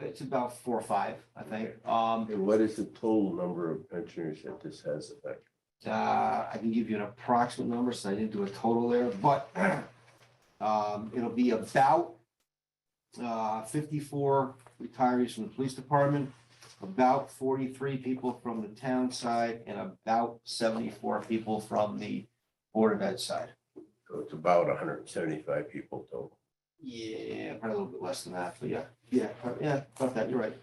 it's about four or five, I think. Um, And what is the total number of pensioners that this has affected? Uh, I can give you an approximate number, so I didn't do a total there, but um, it'll be about uh, fifty-four retirees from the police department, about forty-three people from the town side, and about seventy-four people from the Board of Ed side. So it's about hundred and seventy-five people total. Yeah, probably a little bit less than that, but yeah, yeah, pro- yeah, about that, you're right.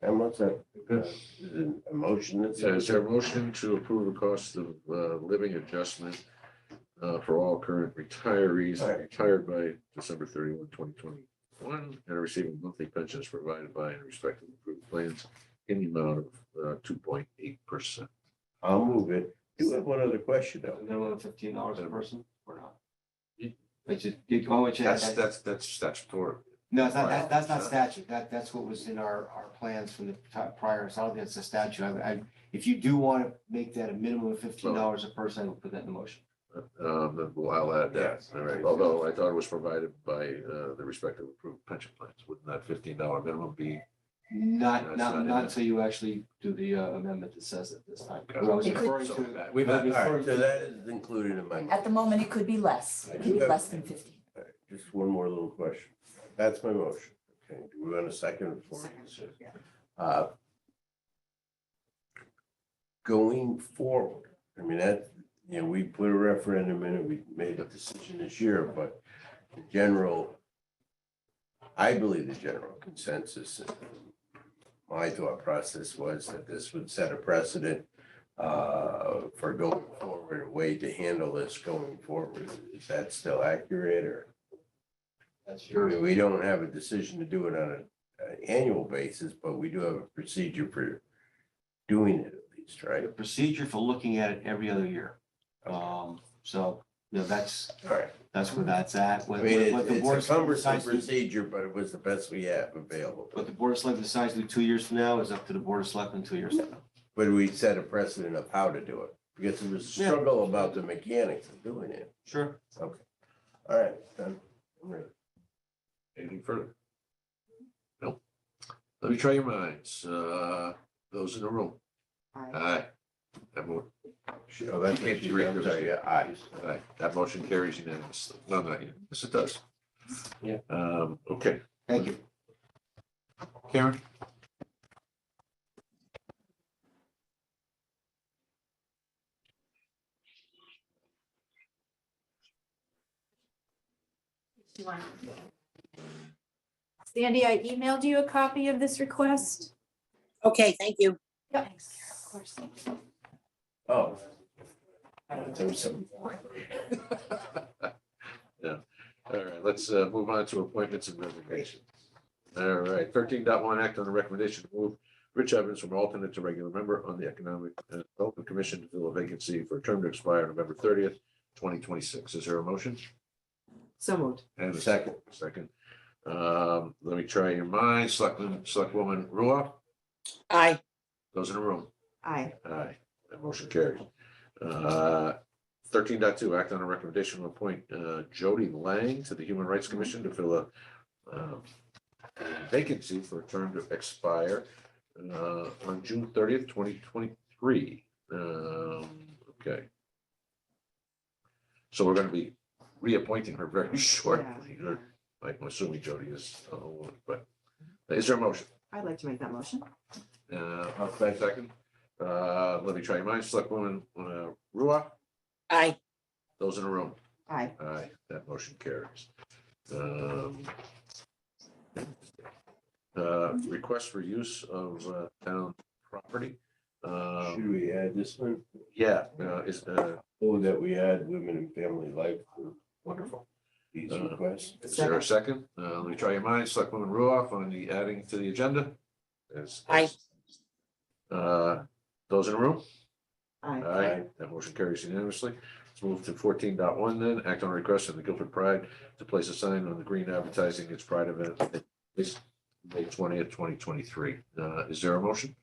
And what's that? Good. uh, is it A motion that So says. is there a motion to approve the cost of uh, living adjustment uh, for all current retirees Alright. retired by December 31, 2021, and are receiving monthly pensions provided by and respective approved plans in the amount of uh, two point eight percent? I'll move it. Do have one other question though. They're only fifteen dollars a person or Yeah. not? Which is, you go and check. That's, that's, that's statutory. No, it's not, that, that's not Wow. statute, that, that's what was in our, our plans from the ti- prior, so I don't think it's a statute, I, I, if you do wanna make that a minimum of fifteen dollars a person, I will put that in the motion. Um, then we'll- I'll add that, Yes. All right. although I thought it was provided by uh, the respective approved pension plans. Wouldn't that fifteen dollar minimum be? Not, That's not not, in not it. until you actually do the uh, amendment that says it this time. Okay. What I was It could- referring something to, back? All We've had- right, so that is included in my. At the moment, it could be less. It could be less than fifty. Just one more little question. That's my motion. Okay, do we want a second before we consider? Uh, Going forward, I mean, that, you know, we put a referendum in and we made a decision this year, but the general, I believe the general consensus, and my thought process was that this would set a precedent uh, for going forward, a way to handle this going forward. Is that still accurate or? that's I your, mean, we don't have a decision to do it on a- an annual basis, but we do have a procedure for doing it at least, right? the procedure for looking at it every other year. Um, so, you know, that's, Alright. that's where that's at, I what, what- mean, what it's the board it's a cumbersome decides to procedure, but it was the best we have available. What the board of selectmen decides to do two years from now is up to the board of selectmen two years from now. But we set a precedent of how to do it, because there was a Yeah. struggle about the mechanics of doing it. Sure. Alright, done. I'm ready. Anything further? Nope. Let me try your minds, uh, those in the room. Aye. That mo- Oh, that's Can't what you you, read I'm those? sorry, yeah, aye. aye, that motion carries unanimously. No, not yet. Yes, it does. Yeah. Um, okay, Thank you. Karen? Sandy, I emailed you a copy of this request. Okay, thank you. Yep. Of course. Oh. There was some- Yeah, all right, let's uh, move on to appointments and resignations. All right, thirteen dot one, act on the recommendation to move Rich Evans from alternate to regular member on the Economic uh, Development Commission to fill a vacancy for a term to expire November thirtieth, twenty twenty-six. Is there a motion? So moved. And a second, Second. second. Um, let me try your minds. Selectman, Selectwoman Ruoff, Aye, those in the room. Aye. Aye, that motion carries. Uh, 13.2 act on a recommendation to appoint uh, Jody Lang to the Human Rights Commission to fill a um, vacancy for a term to expire uh, on June thirtieth, twenty twenty-three. Um, Okay. So we're gonna be reappointing her very shortly. Yeah. I'm assuming Jody is, uh, but is there a motion? I'd like to make that motion. Uh, I'll say second. Uh, let me try your minds. Selectwoman, uh, Ruoff, aye, those in the room. Aye. Aye, that motion carries. Um, uh, request for use of, uh, town property. Um Should we add this one? yeah, uh, is, uh, Oh, that we add women and family life group, wonderful. these requests. Is there a second? Uh, let me try your minds. Selectwoman Ruoff on the adding to the agenda. As- Aye. Uh, those in the room? Aye. Aye, that motion carries unanimously. Let's move to fourteen point one. then, act on a request from the Guilford Pride to place a sign on the green advertising its Pride event at least May twentieth, twenty twenty-three. Uh, is there a motion?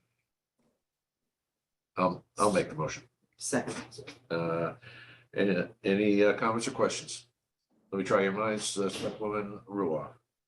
Um, I'll make the motion. Second. Uh, any, any uh, comments or questions? Let me try your minds, uh, Selectwoman Ruoff.